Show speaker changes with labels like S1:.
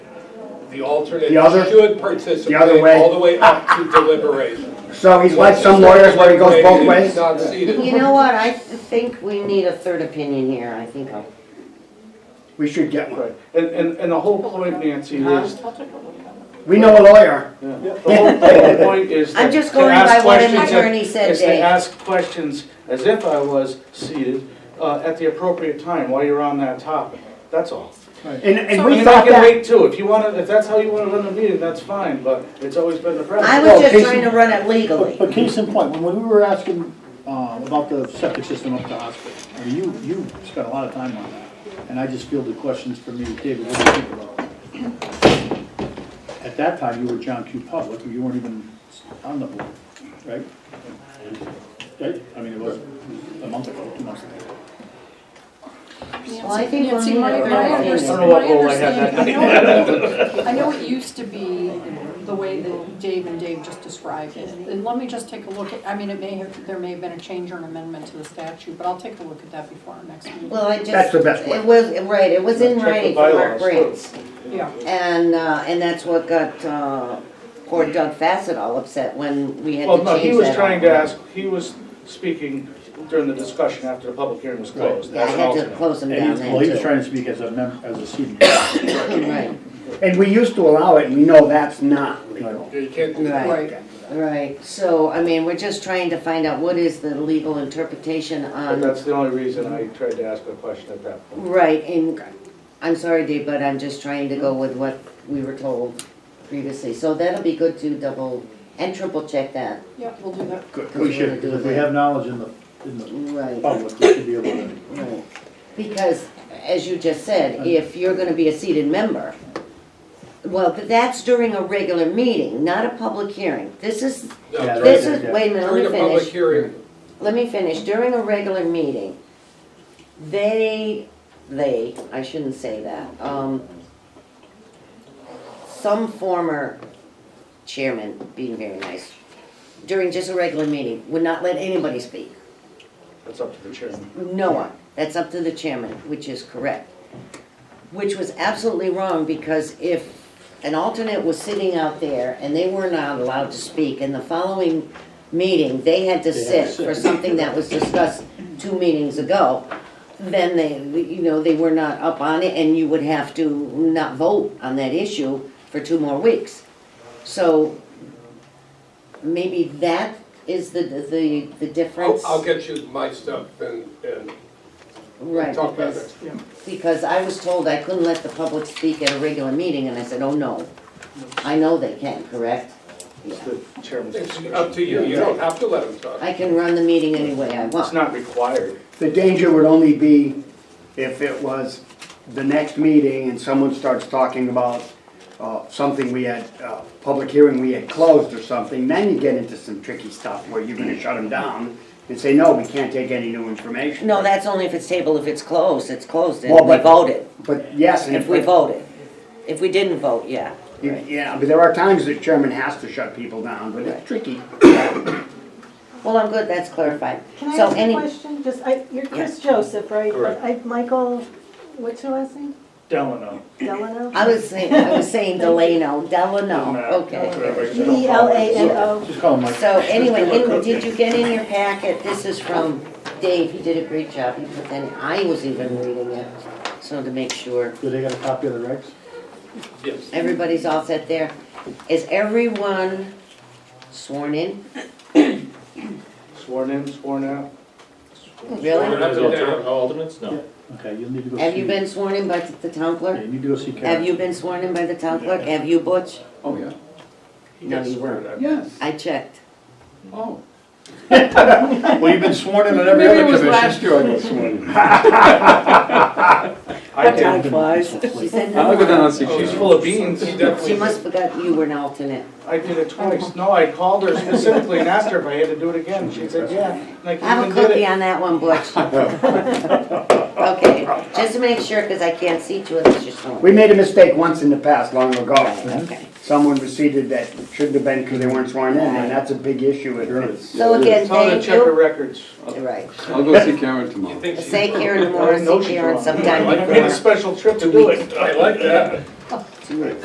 S1: The alternate
S2: The other-
S1: should participate
S2: way.
S1: all the way up to deliberation.
S2: So he's like some lawyers where he goes both ways?
S1: It's not seated.
S3: You know what, I think we need a third opinion here, I think.
S2: We should get one.
S4: Right, and, and, and the whole point, Nancy, is,
S2: We know a lawyer.
S4: yeah, the whole, the whole point is.
S3: I'm
S4: to-
S3: just
S4: to
S3: going
S4: ask
S3: by what an
S4: questions that-
S3: attorney said,
S4: Is to
S3: Dave.
S4: ask questions as if I was seated, uh, at the appropriate time while you're on that topic, that's all.
S2: And, and
S4: I
S2: we
S4: mean,
S2: thought
S4: I can
S2: that,
S4: wait too, if you wanna, if that's how you wanna run the meeting, that's fine, but it's always been the
S3: I
S4: practice.
S3: was just
S5: Casey-
S3: trying to run it legally.
S5: But case in point, when we were asking uh, about the septic system up at the hospital, I mean, you, you spent a lot of time on that. And I just fielded questions from you, David, what do you think about it? At that time, you were John Q. Public, you weren't even on the board, right? Right? I mean, it was a month ago, two months ago.
S3: Well, I think we'll
S6: Nancy,
S3: need
S6: my,
S3: a
S6: my
S3: third
S4: understand-
S6: understanding,
S3: opinion.
S4: don't know what role I
S6: my
S4: had that
S6: understanding, I know, I know it used to be the way that Dave and Dave just described it. And let me just take a look at, I mean, it may have, there may have been a change or an amendment to the statute, but I'll take a look at that before our next meeting.
S3: Well, I just.
S2: That's the best way.
S3: It was, right, it was in
S4: Check the
S3: writing from Mark
S4: bylaws, too.
S3: Briggs.
S6: Yeah,
S3: And, uh, and that's what got, uh, poor Doug Fassett all upset when we had to
S4: Well,
S3: change
S4: no,
S3: that.
S4: he was trying to
S3: all.
S4: ask, he was speaking during the discussion after the public hearing was closed,
S3: Yeah, I
S4: as an
S3: had to
S4: alternate.
S3: close him
S5: And he
S3: down
S5: was, well, he
S3: then
S5: was
S3: too.
S5: trying to speak as a mem, as a senior.
S3: Right,
S2: and we used to allow it, and we know that's not legal.
S1: You can't do that.
S3: right,
S6: right.
S3: right. So, I mean, we're just trying to find out what is the legal interpretation
S4: But
S3: on
S4: that's the only reason I tried to ask a question at that point.
S3: Right, and I'm sorry, Dave, but I'm just trying to go with what we were told previously. So that'll be good to double and triple check that.
S6: Yeah, we'll do that.
S5: Good, we should, because if we have knowledge in the, in the
S1: Oh.
S3: Right,
S5: public, we should be able to.
S3: right. Because, as you just said,
S1: Mm.
S3: if you're gonna be a seated member, well, but that's during a regular meeting, not a public hearing. This is,
S1: No,
S5: Yeah,
S1: during-
S3: this is, wait a minute, let me
S1: During a
S3: finish.
S1: public hearing,
S3: let me finish. During a regular meeting, they, they, I shouldn't say that, um, some former chairman, being very nice, during just a regular meeting, would not let anybody speak.
S4: That's up to the chairman.
S3: No one. That's up to the chairman, which is correct. Which was absolutely wrong because if an alternate was sitting out there and they were not allowed to speak, in the following meeting, they had to
S5: They had to
S3: sit
S5: sit.
S3: for something that was discussed two meetings ago, then they, you know, they were not up on it and you would have to not vote on that issue for two more weeks. So maybe that is the, the, the difference.
S1: I'll, I'll get you my stuff and, and
S3: Right,
S1: talk about
S3: because
S1: it.
S3: because I was told I couldn't let the public speak at a regular meeting, and I said, oh, no. I know they can, correct? Yeah.
S4: It's the chairman's
S1: It's
S4: discretion.
S1: up to you, you don't have to let him talk.
S3: I can run the meeting any way I
S4: It's
S3: want.
S4: not required.
S2: The danger would only be if it was the next meeting and someone starts talking about uh, something we had, uh, public hearing we had closed or something, then you get into some tricky stuff where you're gonna shut them down and say, no, we can't take any new information.
S3: No, that's only if it's table, if it's closed, it's closed, and
S2: Well,
S3: we
S2: but-
S3: voted,
S2: But yes, and
S3: if we
S2: if,
S3: voted. If we didn't vote, yeah.
S2: you- yeah, but there are times the chairman has to shut people down, but it's tricky.
S3: Well, I'm good, that's clarified.
S7: Can I
S3: So
S7: ask a
S3: any-
S7: question? Just, I, you're Chris Joseph, right?
S1: Correct.
S7: I, Michael, what's your last name?
S4: Delano.
S7: Delano?
S3: I was saying, I was saying Delano, Delano, okay.
S7: D L A N O.
S5: Just call him Mike.
S3: So anyway, in- did you get in your packet, this is from Dave, he did a great job, he put that in, I was even reading it, so to make sure.
S5: Do they got a copy of the regs?
S1: Yes.
S3: Everybody's all set there. Is everyone sworn in?
S4: Sworn in, sworn out.
S3: Really?
S1: Up and down.
S8: Alternates, no.
S5: Okay, you'll need to go see.
S3: Have you been sworn in by the town
S5: Yeah,
S3: clerk?
S5: you need to go see Karen.
S3: Have you been sworn in by the town clerk? Have you, Butch?
S5: Oh, yeah.
S1: He
S3: No,
S1: gets
S3: you
S1: sworn in.
S5: Yes.
S3: I checked.
S5: Oh. Well, you've been sworn in at every
S8: Maybe
S5: other
S8: it was
S5: commission.
S8: last year I got sworn in.
S4: I did.
S3: She said
S8: I
S3: no.
S8: look at that and say,
S4: She's
S8: she's
S4: full of beans.
S1: He definitely.
S3: She must have forgot you were an alternate.
S4: I did it twice. No, I called her specifically and asked her if I had to do it again. She said, yeah. And
S3: Have a
S4: I came and did
S3: cookie
S4: it.
S3: on that one, Butch. Okay, just to make sure, because I can't see to unless you're sworn.
S2: We made a mistake once in the past, long ago.
S3: Okay.
S2: Someone receded that shouldn't have been because they weren't sworn in, and that's a big issue. if it's-
S3: So again,
S4: Tell her to
S3: thank
S4: check her
S3: you.
S4: records.
S3: Right.
S8: I'll go see Karen
S1: You
S8: tomorrow.
S1: think she-
S3: Say Karen tomorrow,
S4: I know
S3: see
S4: she's
S3: Karen
S4: wrong.
S3: sometime
S4: I made a
S3: before.
S4: special trip to do it.
S1: I like that.
S3: Two weeks.